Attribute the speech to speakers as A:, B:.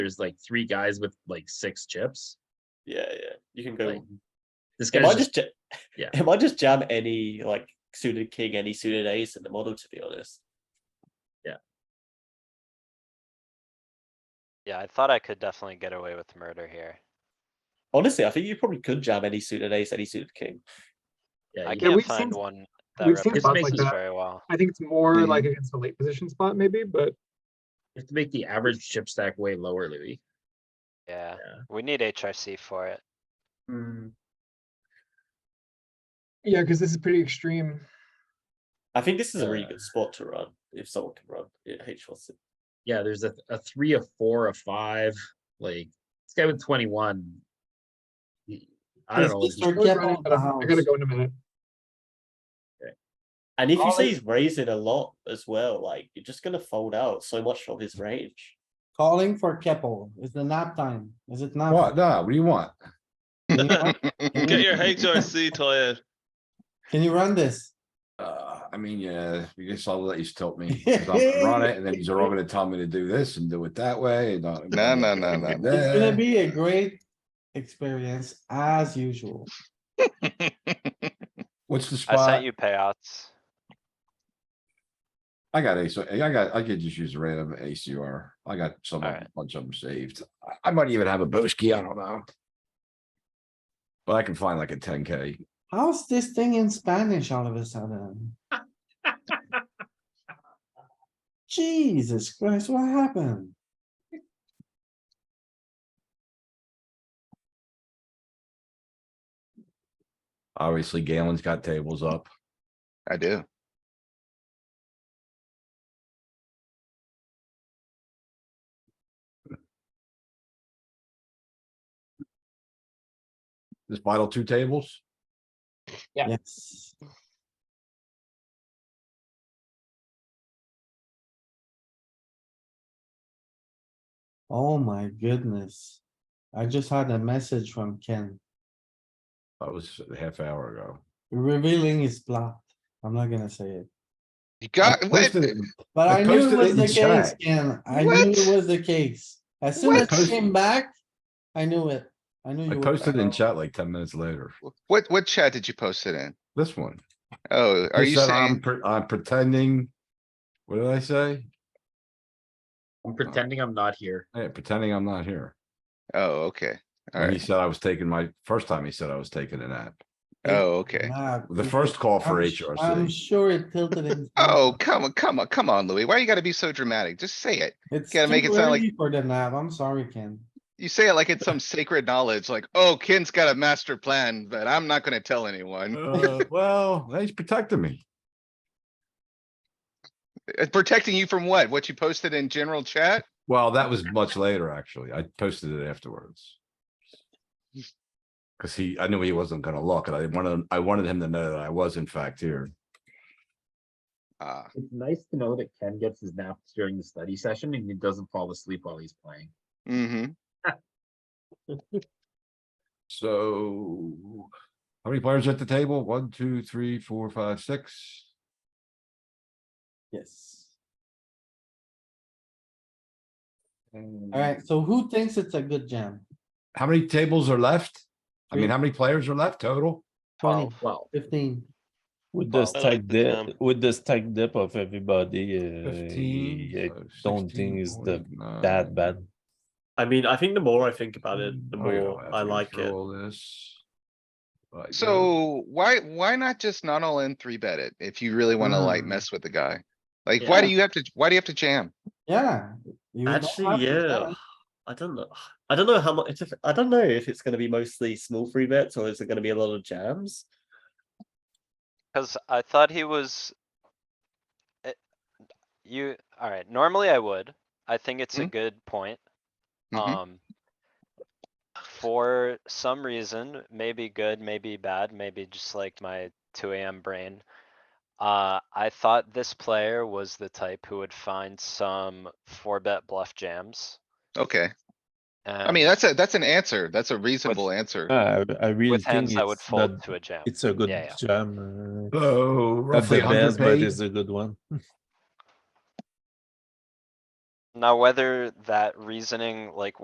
A: there's like three guys with like six chips.
B: Yeah, yeah. You can go.
A: Like, This
B: It
A: guy's
B: might
A: just,
B: just, ja-
A: yeah.
B: It might just jam any like suited king, any suited ace in the model. To be honest,
C: Yeah, I thought I could definitely get away with murder here.
B: honestly, I think you probably could jam any suited ace, any suited king.
A: yeah,
C: I
A: you-
C: can't
D: we've
C: find
D: seen-
C: one that
D: we've seen
A: This spots
C: represents
A: like
C: this
D: that.
C: very well.
D: I think it's more
B: Mhm.
D: like against the late position spot, maybe, but
A: you have to make the average chip stack way lower, Louis.
C: Yeah,
A: Yeah.
C: we need HRC for it.
D: yeah, because this is pretty extreme.
B: I think this is a really
A: Uh,
B: good spot to run if someone can run yeah, H Watson.
A: Yeah, there's a, a three, a four, a five, like this guy with 21. he- I don't
E: Is
A: know.
E: this
A: like,
D: I
E: your-
D: was
E: Get
D: running,
E: out of
D: but
E: the
D: I'm- I gotta
E: house.
D: go in a minute.
B: And if you
E: All
B: say
E: it-
B: he's raising a lot as well, like you're just gonna fold out so much of his range.
E: Calling for Keppel. Is the nap time? Is it not?
F: Um,
G: What, nah, what do you want?
F: Get your HRC, Toya.
E: Can you run this?
G: Uh, I mean, yeah, you just all let you tilt me. 'cause I'm gonna Run it, and then you're all gonna tell me to do this and do it that way, and. uh,
F: No, no, no, no.
G: and
E: It's gonna
G: that.
E: be a great experience as usual.
G: What's
C: I
G: the spot?
C: sent you payouts.
G: I got ace, I got, I could just use a random ACR. I got some,
C: Alright.
G: bunch of them saved. I- I might even have a Boski, I don't know. But I can find like a ten K.
E: How's this thing in Spanish all of a sudden? Jesus Christ, what happened?
G: Obviously Galen's got tables up.
F: I do.
G: This final two tables,
D: Yeah.
E: Yes. Oh my goodness. I just had a message from Ken
G: that was a half hour ago.
E: revealing his plot. I'm not gonna say it,
F: You got,
G: I
F: wait,
G: posted it-
E: but
G: I
E: I knew it
G: posted
E: was
G: it
E: the
G: in
E: case,
G: chat.
E: Ken. I knew it
F: What?
E: was the case. As soon as
F: What?
E: it came back, I knew it. I knew.
G: I
E: you were
G: posted in
E: right.
G: chat like ten minutes later.
F: what, what chat did you post it in?
G: This one.
F: Oh, are
G: Just
F: you
G: that I'm
F: saying,
G: pre- I'm pretending. What did I say?
A: I'm pretending I'm not here.
G: Yeah, pretending I'm not here.
F: oh, okay,
G: And he
F: alright,
G: said I was taking my, first time he said I was taking a nap.
F: oh, okay.
E: Nah,
G: The
E: it-
G: first call for
E: I'm sh- I'm
G: HRC.
E: sure it tilted him.
F: Oh, come on, come on, come on, Louis, why you gotta be so dramatic? Just say it.
E: It's
F: Gotta make
E: too
F: it sound like-
E: early For the nav, I'm sorry, Ken.
F: You say it like it's some sacred knowledge, like, oh, Ken's got a master plan, but I'm not gonna tell anyone.
G: Uh, Well, he's protecting me.
F: Uh, Protecting you from what? What you posted in general chat?
G: Well, that was much later, actually. I posted it afterwards. Cause he, I knew he wasn't gonna look and I wanted, I wanted him to know that I was in fact here.
F: Ah,
A: It's nice to know that Ken gets his naps during the study session and he doesn't fall asleep while he's playing.
F: mm-hmm.
G: So how many players at the table? One, two, three, four, five, six.
E: Yes.
G: Mm.
E: Alright, so who thinks it's a good jam?
G: How many tables are left? I mean,
E: Three.
G: how many players are left total?
E: Twenty,
A: Well,
E: fifteen,
H: With the
C: Well, I like
H: stack
C: the jump.
H: dip,
B: Um,
H: with the stack dip of everybody, uh, I
G: Fifteen. so
H: don't
G: 16,
H: think it's the,
G: 49.
H: that bad.
B: I mean, I think the more I think about it, the
G: Oh, yeah,
B: more
G: have
B: I
G: to go
B: like
G: through
B: it.
G: All this. Like this.
F: So why, why not just not all in three bet it if you really wanna like
E: Mm.
F: mess with the guy? Like, why do you have to, why do you have to jam?
E: yeah. you don't have
B: Actually,
E: to
B: yeah.
E: jam.
B: I don't know. I don't know how much. It's, I don't know if it's going to be mostly small free bets or is it going to be a lot of jams.
C: Cause I thought he was. It- You, alright, normally I would. I think it's
D: Mm-hmm.
C: a good point.
G: Uh.
F: Mhm.
C: Um. For some reason, maybe good, maybe bad, maybe just like my two AM brain. Uh, I thought this player was the type who would find some four bet bluff jams.
F: Okay, I
C: and
F: mean, that's a, that's an answer. That's a reasonable answer.
H: I, I really
C: With
H: think
C: hands, I would
H: it's not,
C: fold to a jam.
H: it's a good
C: Yeah, yeah.
H: jam. uh,
G: So
H: Not
G: Oh, roughly
H: the
G: a hundred
H: best, but
G: pay,
H: it's a good one.
C: Now, whether that reasoning, like